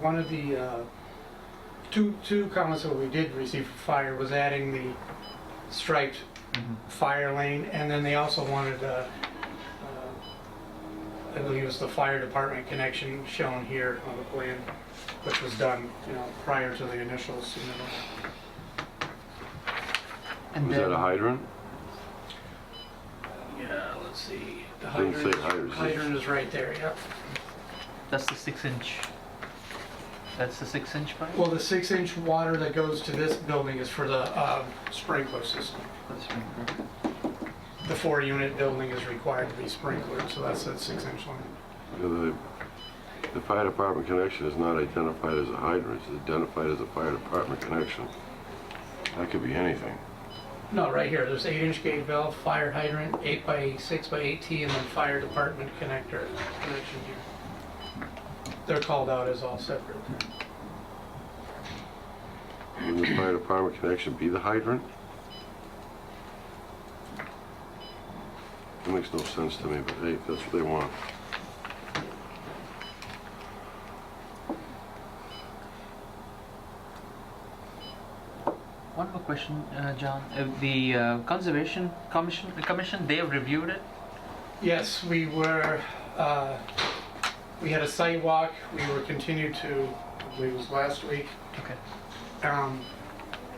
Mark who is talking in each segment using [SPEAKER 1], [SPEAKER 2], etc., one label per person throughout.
[SPEAKER 1] One of the, uh, two, two comments that we did receive for fire was adding the striped fire lane, and then they also wanted, uh, uh, I believe it was the fire department connection shown here on the plan, which was done, you know, prior to the initial submittal.
[SPEAKER 2] And
[SPEAKER 3] Is that a
[SPEAKER 2] then,
[SPEAKER 3] hydrant?
[SPEAKER 1] Yeah, let's see. The
[SPEAKER 3] Doesn't say
[SPEAKER 1] hydrant,
[SPEAKER 3] hydrants, does it?
[SPEAKER 1] hydrant is right there, yep.
[SPEAKER 2] that's the six inch. That's the six inch pipe?
[SPEAKER 1] Well, the six-inch water that goes to this building is for the uh, sprinkler system.
[SPEAKER 2] That's right.
[SPEAKER 1] The four-unit building is required to be sprinklered, so that's that six-inch line.
[SPEAKER 3] The the fire department connection is not identified as a hydrant, it's identified as a fire department connection. That could be anything.
[SPEAKER 1] No, right here, there's eight-inch gate valve, fire hydrant, eight by, six by eight T, and then fire department connector, connection here. They're called out as all separate.
[SPEAKER 3] Wouldn't the fire department connection be the hydrant? That makes no sense to me, but hey, if that's what they want.
[SPEAKER 2] One more question, uh, John. Uh, the uh, conservation commission, the commission, they have reviewed it.
[SPEAKER 1] Yes, we were, uh, we had a site walk, we were continued to, I believe it was last week,
[SPEAKER 2] Okay.
[SPEAKER 1] Um,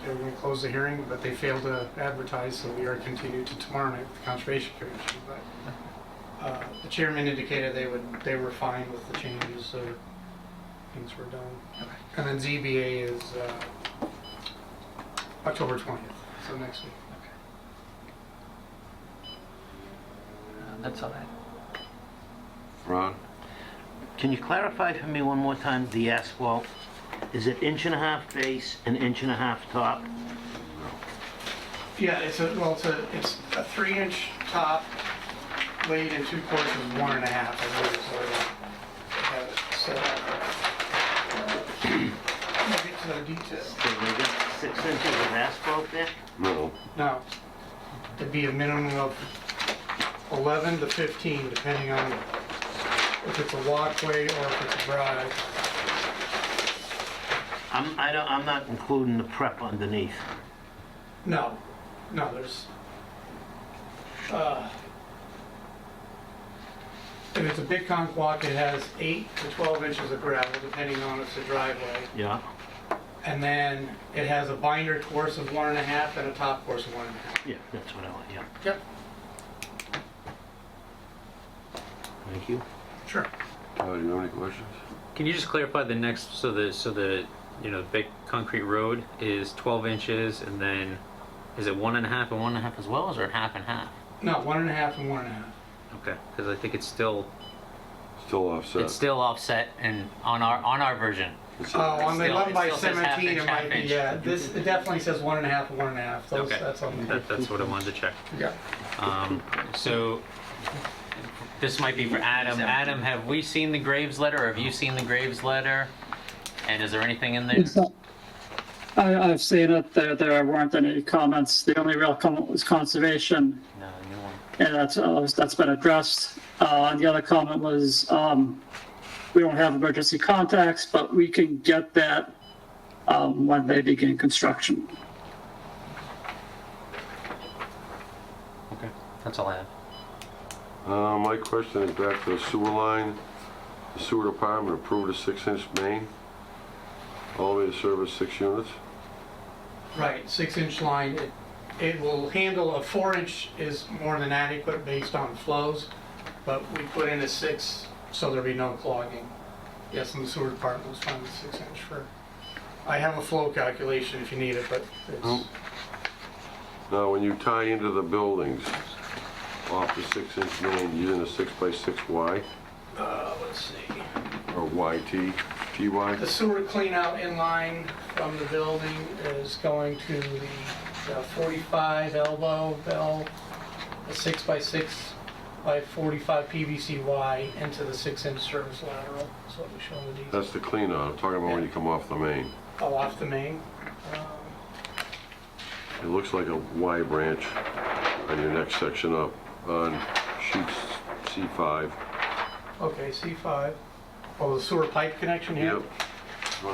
[SPEAKER 1] They were going to close the hearing, but they failed to advertise, so we are continued to tomorrow night with the Conservation Commission. But uh, the chairman indicated they would, they were fine with the changes, so things were done.
[SPEAKER 2] Okay.
[SPEAKER 1] And then ZBA is uh, October 20th, so next week.
[SPEAKER 2] Uh, that's all right.
[SPEAKER 3] Ron?
[SPEAKER 4] Can you clarify for me one more time the asphalt? Is it inch and a half base and inch and a half top?
[SPEAKER 1] Yeah, it's a, well, it's a, it's a three-inch top laid in two courses, one and a half, I believe, so I have it set up. I'll get to the details.
[SPEAKER 4] So we got six inches of asphalt there?
[SPEAKER 3] No.
[SPEAKER 1] No, it'd be a minimum of 11 to 15, depending on if it's a walkway or if it's a drive.
[SPEAKER 4] I'm, I don't, I'm not including the prep underneath.
[SPEAKER 1] No, no, there's, uh, if it's a big conch walk, it has 8 to 12 inches of gravel, depending on if it's a driveway.
[SPEAKER 4] Yeah.
[SPEAKER 1] And then it has a binder course of one and a half and a top course of one and a half.
[SPEAKER 4] Yeah, that's what I want, yeah.
[SPEAKER 1] Yep.
[SPEAKER 4] Thank you.
[SPEAKER 1] Sure.
[SPEAKER 3] Todd, do you have any questions?
[SPEAKER 5] Can you just clarify the next, so the, so the, you know, big concrete road is 12 inches and then is it one and a half and one and a half as well, or is it half and half?
[SPEAKER 1] No, one and a half and one and a half.
[SPEAKER 5] Okay, because I think it's still,
[SPEAKER 3] Still offset.
[SPEAKER 5] it's still offset and on our, on our version.
[SPEAKER 3] It's-
[SPEAKER 1] Oh, on the
[SPEAKER 5] Still-
[SPEAKER 1] eleven by
[SPEAKER 5] it still says half
[SPEAKER 1] seventeen, it
[SPEAKER 5] inch,
[SPEAKER 1] might
[SPEAKER 5] half
[SPEAKER 1] be,
[SPEAKER 5] inch.
[SPEAKER 1] yeah, this, it definitely says one and a half, one and a half, those,
[SPEAKER 5] Okay.
[SPEAKER 1] that's on the,
[SPEAKER 5] That, that's what I wanted to check.
[SPEAKER 1] yeah.
[SPEAKER 5] Um, so this might be for Adam. Adam, have we seen the Graves letter or have you seen the Graves letter? And is there anything in there?
[SPEAKER 6] It's not- I, I've seen it, there, there weren't any comments, the only real comment was conservation,
[SPEAKER 5] No, new one.
[SPEAKER 6] and that's, uh, that's been addressed. Uh, and the other comment was, um, we don't have emergency contacts, but we can get that, um, when they begin construction.
[SPEAKER 5] Okay, that's all I have.
[SPEAKER 3] Uh, My question is back to the sewer line. The sewer department approved a six-inch main, all the way to service six units.
[SPEAKER 1] Right, six inch line, it, it will handle, a four inch is more than adequate based on flows, but we put in a six, so there'll be no clogging. Yes, and the sewer department was fine with six inch for, I have a flow calculation if you need it, but it's,
[SPEAKER 3] Oh. Now, when you tie into the buildings off the six-inch main, using a six-by-six Y
[SPEAKER 1] uh, let's see.
[SPEAKER 3] or YT, TY,
[SPEAKER 1] The sewer cleanout in line from the building is going to the uh, 45 elbow bell, a 6 by 6 by 45 PVCY into the 6-inch service lateral, is what we show in the detail.
[SPEAKER 3] that's the clean out. I'm talking about when you come off the main.
[SPEAKER 1] Oh, off the main. Um,
[SPEAKER 3] It looks like a Y branch on your next section up on sheet C5.
[SPEAKER 1] Okay, C5. Oh, the sewer pipe connection here?
[SPEAKER 3] Yep,